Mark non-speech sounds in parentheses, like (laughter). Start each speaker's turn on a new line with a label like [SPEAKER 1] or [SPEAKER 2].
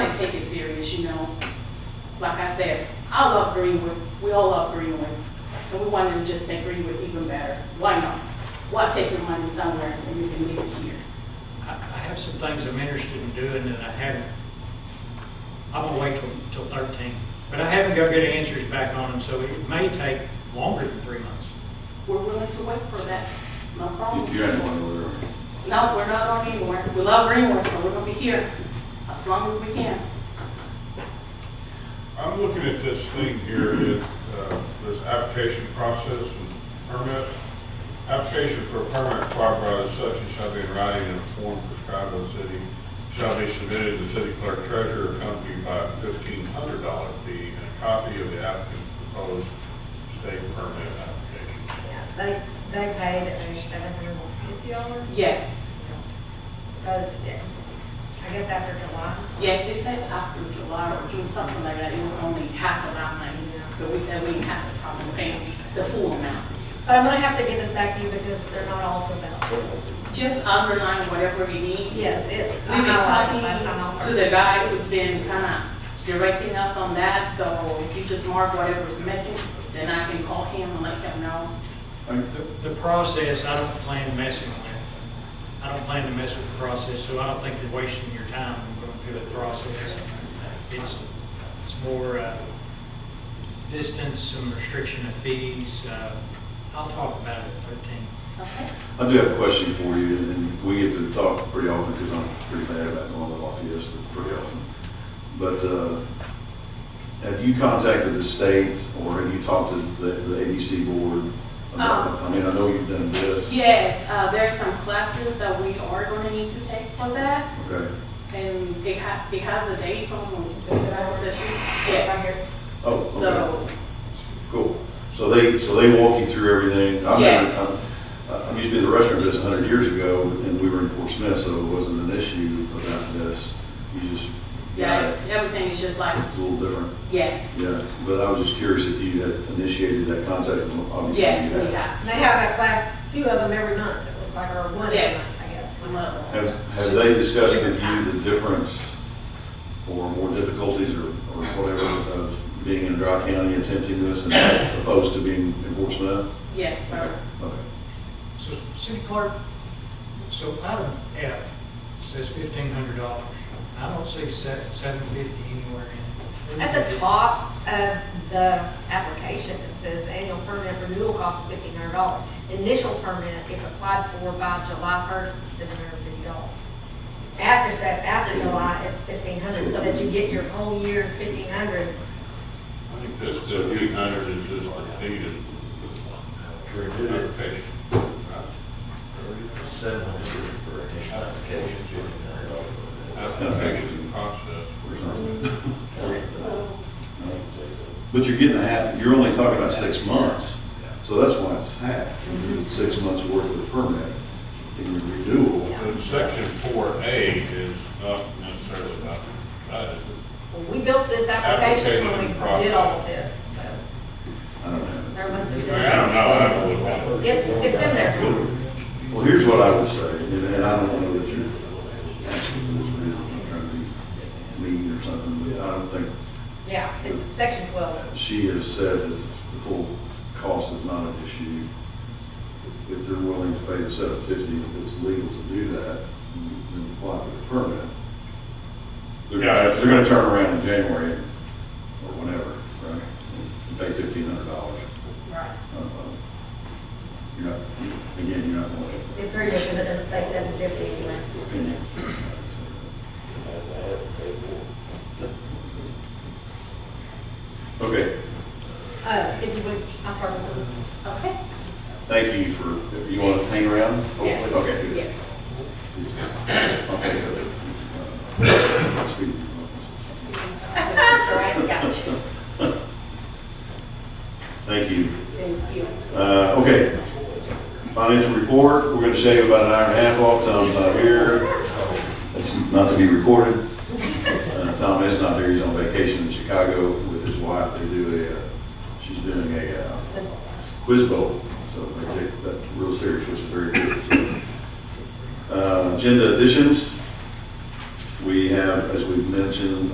[SPEAKER 1] take it serious, you know. Like I said, I love Greenwood, we all love Greenwood, and we wanted to just make Greenwood even better. Why not? Why take your money somewhere and you can leave it here?
[SPEAKER 2] I I have some things I'm interested in doing that I haven't, I'm gonna wait till, till thirteen. But I haven't got good answers back on them, so it may take longer than three months.
[SPEAKER 1] We're willing to wait for that, no problem.
[SPEAKER 3] You had one over there.
[SPEAKER 1] No, we're not going anywhere. We love Greenwood, and we're gonna be here as long as we can.
[SPEAKER 4] I'm looking at this thing here, that, uh, this application process and permit. Application for a permit required by the section shall be in writing in a form prescribed by the city, shall be submitted to the city clerk treasurer accompanied by a fifteen hundred dollar fee and a copy of the applicant's proposed state permit application.
[SPEAKER 5] Yeah, They, they paid a seven hundred and fifty dollars,
[SPEAKER 1] Yes,
[SPEAKER 5] because I guess after July,
[SPEAKER 1] yes, they said after July or June, something like that, it was only half of our money. But we said we didn't have a problem paying the full amount.
[SPEAKER 5] but I'm gonna have to get this back to you because they're not all filled out.
[SPEAKER 1] Just underline whatever we need.
[SPEAKER 5] Yes, it, I
[SPEAKER 1] We've been
[SPEAKER 5] highlighted it last time I was
[SPEAKER 1] talking to the
[SPEAKER 5] here.
[SPEAKER 1] guy who's been kind of directing us on that, so if you just mark whatever's missing, then I can call him and let him know.
[SPEAKER 2] The, the process, I don't plan messing with. I don't plan to mess with the process, so I don't think you're wasting your time going through the process. It's, it's more, uh, distance, some restriction of fees, uh, I'll talk about it at thirteen.
[SPEAKER 1] Okay.
[SPEAKER 3] I do have a question for you, and we get to talk pretty often because I'm pretty bad about going to Lafayette pretty often. But uh, have you contacted the state or have you talked to the the ABC board?
[SPEAKER 1] Um,
[SPEAKER 3] about- I mean, I know you've done this.
[SPEAKER 1] Yes, uh, there are some classes that we are going to need to take for that,
[SPEAKER 3] Okay.
[SPEAKER 1] and it has, it has a date on the, that you,
[SPEAKER 5] Right
[SPEAKER 1] yes.
[SPEAKER 5] here.
[SPEAKER 3] Oh, okay.
[SPEAKER 1] So,
[SPEAKER 3] Cool. So they, so they walk you through everything? I
[SPEAKER 1] Yes.
[SPEAKER 3] remember- I I used to be in the restaurant business 100 years ago, and we were in Fort Smith, so it wasn't an issue about this. You just got
[SPEAKER 1] yeah,
[SPEAKER 3] it.
[SPEAKER 1] everything is just like,
[SPEAKER 3] It's a little different.
[SPEAKER 1] yes.
[SPEAKER 3] Yeah, but I was just curious if you had initiated that contact, and obviously
[SPEAKER 1] Yes,
[SPEAKER 3] you
[SPEAKER 1] we
[SPEAKER 3] had.
[SPEAKER 1] have.
[SPEAKER 5] They have a class, two of them every month, it looks like, or one every
[SPEAKER 1] Yes.
[SPEAKER 5] month, I guess.
[SPEAKER 1] We love them.
[SPEAKER 3] Have, have they discussed with you the difference or more difficulties or, or whatever of being in Dry County attempting this and opposed to being in Fort Smith?
[SPEAKER 1] Yes, sir.
[SPEAKER 3] Okay.
[SPEAKER 2] So, city clerk, so item F says fifteen hundred dollars. I don't see seven, seven fifty anywhere in. it.
[SPEAKER 5] At the top of the application, it says the annual permit renewal cost of fifteen hundred dollars. Initial permit, if applied for by July first, is seven hundred and fifty dollars. After, so after July, it's fifteen hundred, so that you get your whole year's fifteen hundred.
[SPEAKER 4] I think this fifteen hundred is just the fee to application.
[SPEAKER 6] Seven hundred for initial application, fifteen hundred dollars.
[SPEAKER 4] Application process.
[SPEAKER 3] But you're getting a half, you're only talking about six months, so that's why it's half.
[SPEAKER 1] Mm-hmm.
[SPEAKER 3] It's Six months worth of permit in your renewal.
[SPEAKER 5] Yeah.
[SPEAKER 4] But section four A is not necessarily about, uh,
[SPEAKER 5] Well, We built this application when
[SPEAKER 4] Application
[SPEAKER 5] we
[SPEAKER 4] process.
[SPEAKER 5] did all of this, so
[SPEAKER 3] I don't know.
[SPEAKER 5] there must have
[SPEAKER 4] I don't know,
[SPEAKER 5] been.
[SPEAKER 4] I don't look at it.
[SPEAKER 5] It's, it's in there.
[SPEAKER 3] Well, here's what I would say, and and I don't know that you're asking for this now, I'm trying to be mean or something, but I don't think,
[SPEAKER 5] Yeah, it's section twelve.
[SPEAKER 3] she has said that the full cost is not an issue. If they're willing to pay the seven fifty, if it's legal to do that, then apply for the permit. They're
[SPEAKER 4] Yeah,
[SPEAKER 3] gonna,
[SPEAKER 4] that's-
[SPEAKER 3] they're gonna turn around in January or whenever, right? And pay fifteen hundred dollars. uh,
[SPEAKER 1] Right.
[SPEAKER 3] You're not, again, you're not going
[SPEAKER 5] It's pretty good because it doesn't say seven fifty anywhere.
[SPEAKER 3] to opinion.
[SPEAKER 6] As I have paid for.
[SPEAKER 3] Okay,
[SPEAKER 5] Uh, if you would, I'll start with
[SPEAKER 1] (laughs)
[SPEAKER 5] the
[SPEAKER 1] Okay?
[SPEAKER 3] thank you for, you wanna hang around? hopefully?
[SPEAKER 1] Yes.
[SPEAKER 3] Okay. good.
[SPEAKER 1] Yes.
[SPEAKER 3] I'll take it. Uh, speak.
[SPEAKER 1] All right, got you.
[SPEAKER 3] Thank you.
[SPEAKER 1] Thank you.
[SPEAKER 3] Uh, okay, financial report, we're gonna shave about an hour and a half off, Tom's not here. It's not to be recorded. Uh, Tom is not there, he's on vacation in Chicago with his wife, they do a, uh, she's doing a, uh, quiz bowl, so they take that real serious, which is very good. so. Uh, agenda additions, we have, as we've mentioned,